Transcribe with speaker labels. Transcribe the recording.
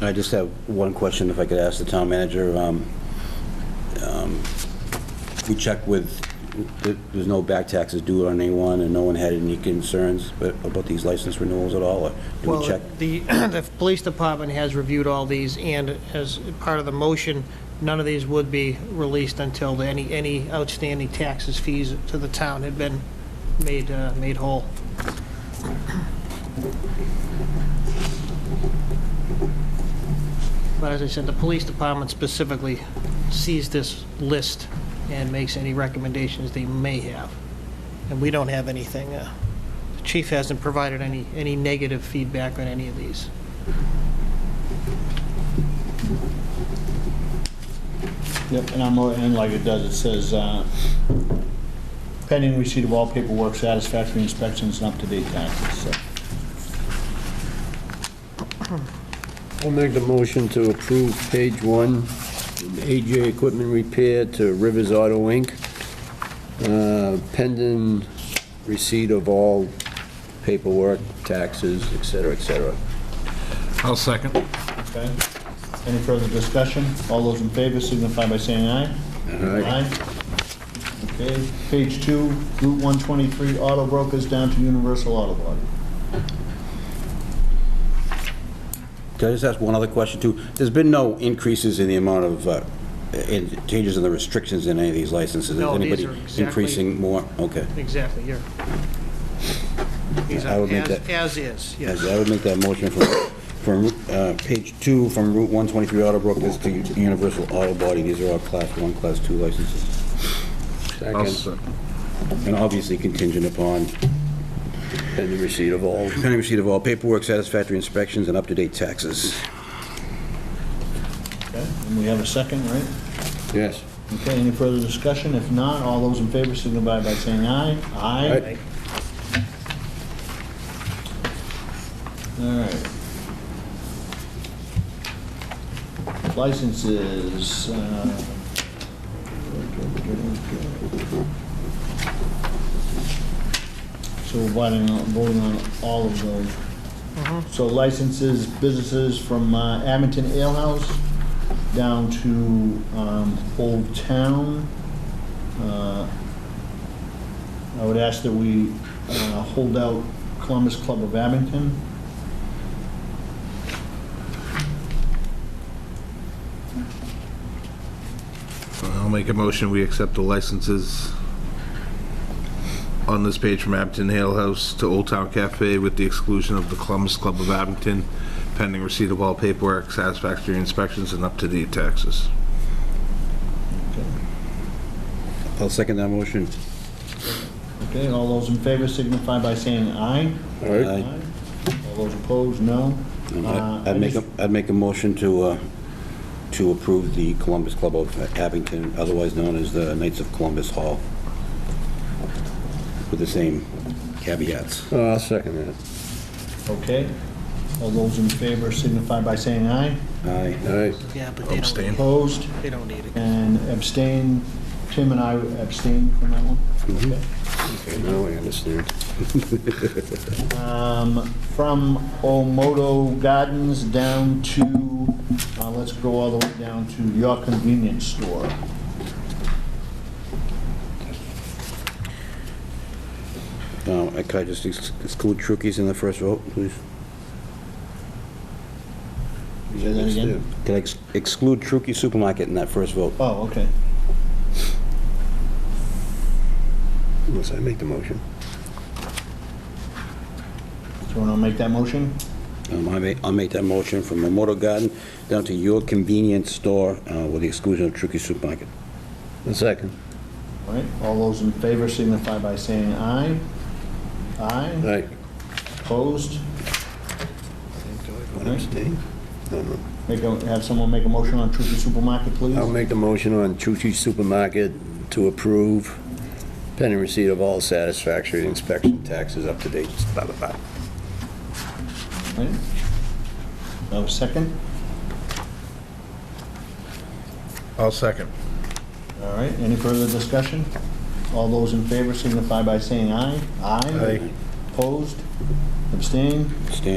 Speaker 1: I just have one question, if I could ask the town manager. Um, um, We checked with, th- there's no back taxes due on anyone, and no one had any concerns but- about these license renewals at all, or did we
Speaker 2: Well,
Speaker 1: check?
Speaker 2: the, the police department has reviewed all these, and as part of the motion, none of these would be released until any, any outstanding taxes, fees to the town had been made, uh, made whole. But as I said, the police department specifically sees this list and makes any recommendations they may have. And we don't have anything, uh, the chief hasn't provided any, any negative feedback on any of these.
Speaker 3: Yep, and I'm, and like it does, it says, uh, pending receipt of all paperwork, satisfactory inspections, and up-to-date taxes, so.
Speaker 4: I'll make the motion to approve page one, AJ Equipment Repair to Rivers Auto Inc., Uh, pending receipt of all paperwork, taxes, et cetera, et cetera.
Speaker 5: I'll second.
Speaker 3: Okay. Any further discussion? All those in favor signify by saying aye.
Speaker 4: Aye.
Speaker 3: Okay, page two, Route 123, auto brokers down to Universal Auto Body.
Speaker 1: Can I just ask one other question, too? There's been no increases in the amount of, uh, in changes in the restrictions in any of these licenses?
Speaker 2: No,
Speaker 1: Is
Speaker 2: these
Speaker 1: anybody
Speaker 2: are exactly-
Speaker 1: Increasing more? Okay.
Speaker 2: Exactly, here. These
Speaker 1: I
Speaker 2: are
Speaker 1: would make
Speaker 2: as,
Speaker 1: that-
Speaker 2: as is,
Speaker 1: Yes,
Speaker 2: yes.
Speaker 1: I would make that motion from, from uh, page two, from Route 123 Auto Brokers to Universal Auto Body. These are all Class 1, Class 2 licenses,
Speaker 5: I'll
Speaker 4: Second,
Speaker 5: second.
Speaker 1: and obviously contingent upon
Speaker 4: pending receipt of all.
Speaker 1: pending receipt of all paperwork, satisfactory inspections, and up-to-date taxes.
Speaker 3: Okay, and we have a second, right?
Speaker 4: Yes.
Speaker 3: Okay, any further discussion? If not, all those in favor signify by saying aye. Aye.
Speaker 4: Aye.
Speaker 3: All right. Licenses. uh, So we're voting on, voting on all of those. So licenses, businesses from uh, Abington Ale House down to um, Old Town. Uh, I would ask that we uh, hold out Columbus Club of Abington.
Speaker 5: I'll make a motion, we accept the licenses on this page from Abington Ale House to Old Town Cafe with the exclusion of the Columbus Club of Abington, pending receipt of all paperwork, satisfactory inspections, and up-to-date taxes.
Speaker 1: I'll second that motion.
Speaker 3: Okay, all those in favor signify by saying aye.
Speaker 1: Aye.
Speaker 3: All those opposed, no. Uh, I
Speaker 1: I'd make, a
Speaker 3: just-
Speaker 1: would make a motion to, uh, to approve the Columbus Club of Abington, otherwise known as the Knights of Columbus Hall, with the same caveats.
Speaker 4: Oh, I'll second that.
Speaker 3: Okay, all those in favor signify by saying aye.
Speaker 1: Aye.
Speaker 4: All right,
Speaker 2: Yeah, but they don't,
Speaker 5: Abstain.
Speaker 2: need
Speaker 3: Opposed
Speaker 2: it. they don't need it.
Speaker 3: and abstain. Tim and I abstain from that one. Okay.
Speaker 4: okay, now I understand.
Speaker 3: Um, From Omoto Gardens down to, uh, let's go all the way down to your convenience store.
Speaker 1: Now, uh, I- could I just ex- exclude Trukey's in the first vote, please?
Speaker 3: Say that again?
Speaker 1: Could I ex- exclude Trukey Supermarket in that first vote?
Speaker 3: Oh, okay.
Speaker 4: Unless I make the motion.
Speaker 3: Someone want to make that motion?
Speaker 1: Um, I ma- I'll make that motion from Memorial Garden down to your convenience store uh, with the exclusion of Trukey Supermarket.
Speaker 4: A second.
Speaker 3: All right, all those in favor signify by saying aye.
Speaker 4: All
Speaker 3: Aye,
Speaker 4: right.
Speaker 3: opposed?
Speaker 4: Want to abstain? No, no.
Speaker 3: Make a, have someone make a motion on Trooper Supermarket, please?
Speaker 4: I'll make the motion on Chuchi Supermarket to approve pending receipt of all satisfactory inspection taxes up to date, blah, blah, blah.
Speaker 3: Right. Have a second?
Speaker 5: I'll second.
Speaker 3: All right, any further discussion? All those in favor signify by saying aye. Aye, opposed, abstained?
Speaker 1: Abstain.